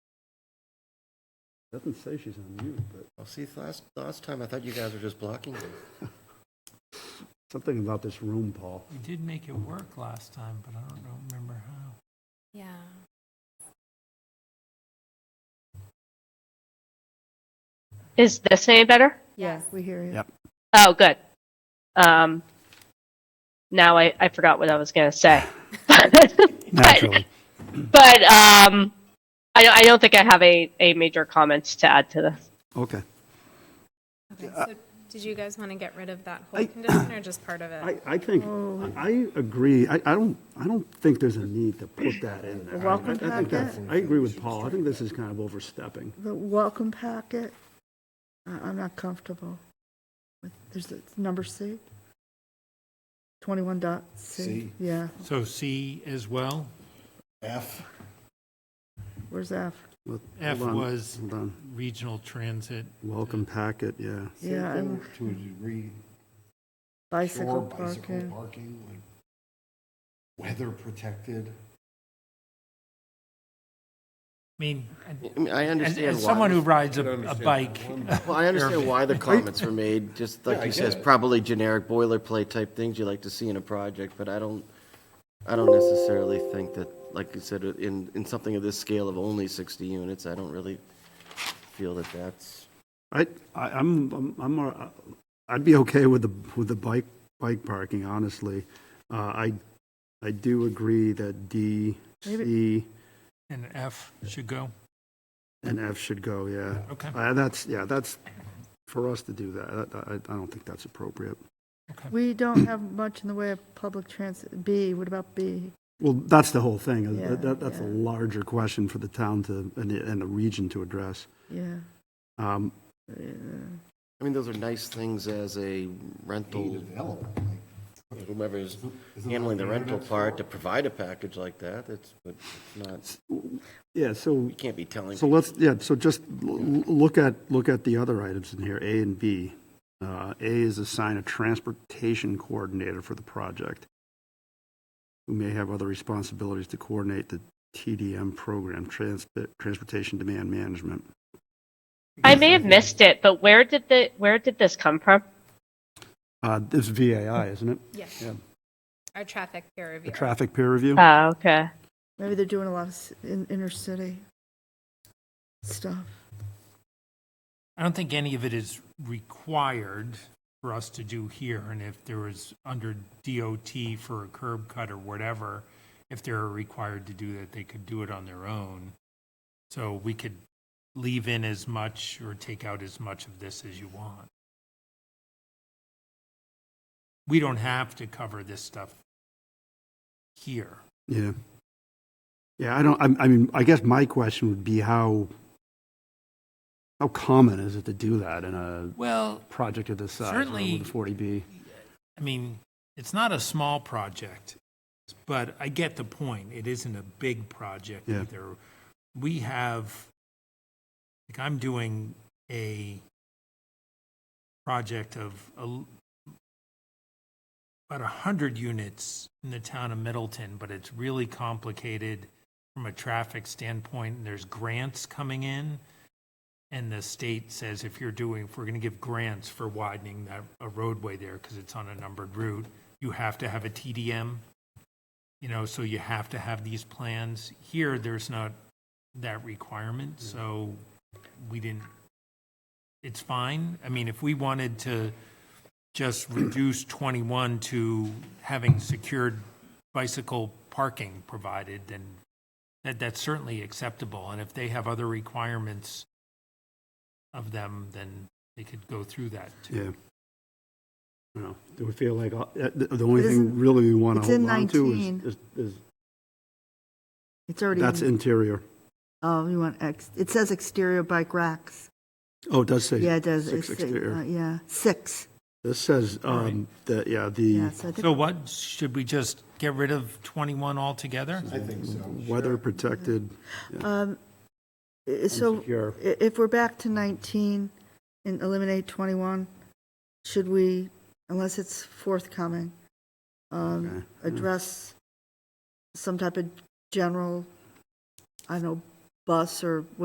Doesn't say she's on mute, but Well, see, last, last time I thought you guys were just blocking me. something about this room, Paul. We did make it work last time, but I don't know- remember how. Yeah. Is this any better? Yes. We hear you. Yep. Oh, good. Um, now I, I forgot what I was going to say. but Naturally. but um, I, don't- I don't think I have a, a major comments to add to this. Okay. Okay, Uh, so did you guys want to get rid of that I- whole condition or just part of I, it? I think, I agree. I, I don't, I don't think there's a need to put that in there. Welcome I- I think packet. that's- I agree with Paul. I think this is kind of overstepping. The welcome packet, I- I'm not comfortable with, there's, it's number C? 21 dot C? C. Yeah, So C as well? F. where's F? Let- F hold on, was hold on. regional transit. Welcome packet, yeah. Yeah, Same I'm- thing To a degree, Bicycle sure, bicycle parking. parking, like weather protected. I mean, I- I mean, I as, understand as why. someone who this- rides a, a bike. Well, I understand why the comments were made, just like you says, probably generic boilerplate type things you like to see in a project, but I don't, I don't necessarily think that, like you said, in, in something of this scale of only 60 units, I don't really feel that that's. I, I, I'm, I'm- I'm, uh, I'd be okay with the, with the bike, bike parking, honestly. Uh, I, I do agree that D, C, And F should go. and F should go, yeah. Okay, Uh, that's, yeah, that's, for us to do that, that- I, I don't think that's appropriate. okay. We don't have much in the way of public transit. B, what about B? Well, that's the whole thing, is Yeah, that, that- that's a yeah. larger question for the town to, and the, and the region to address. Yeah. Um, I mean, those are nice things as a Made rental, available, like, whoever's isn't that handling the what rental it's part for? to provide a package like that, it's, but it's not, Yeah, so, we can't be telling. so let's, yeah, so just l- l- look at, look at the other items in here, A and B. Uh, A is assign a transportation coordinator for the project, who may have other responsibilities to coordinate the TDM program, trans- Transportation Demand Management. I may have missed it, but where did the where did this come from? Uh, This is VAI, isn't it? Yes, Yeah. our traffic peer The review. traffic peer review? Oh, okay. Maybe they're doing a lot of s- in- inner city stuff. I don't think any of it is required for us to do here, and if there was under DOT for a curb cut or whatever, if they're required to do that, they could do it on their own. So we could leave in as much or take out as much of this as you want. We don't have to cover this stuff here. Yeah. Yeah, I don't, I, I mean, I guess my question would be how, how common is it to do that in a Well, project of this size? Certainly- Forty B. I mean, it's not a small project, but I get the point. It isn't a big project Yeah. either. We have, like, I'm doing a project of a l- about 100 units in the town of Middleton, but it's really complicated from a traffic standpoint, and there's grants coming in. And the state says if you're doing, if we're going to give grants for widening that, a roadway there because it's on a numbered route, you have to have a TDM. You know, so you have to have these plans. Here, there's not that requirement, so we didn't, it's fine. I mean, if we wanted to just reduce 21 to having secured bicycle parking provided, then that, that's certainly acceptable. And if they have other requirements of them, then they could go through that too. Yeah. No, do we feel like, uh, the the only It thing isn't- really we want to it's in hold on to is- 19. is, is, It's already. that's in- interior. Oh, you want ex, it says exterior bike racks. Oh, it does say. Yeah, it does. Six It's, uh, exterior. Yeah, six. This says, um, that, yeah, the Yeah, so I think- So what, should we just get rid of 21 altogether? I think so. weather protected, Um, i- So Insecure. i- if we're back to 19 and eliminate 21, should we, unless it's forthcoming, um, Okay, yeah. address some type of general, I don't know, bus or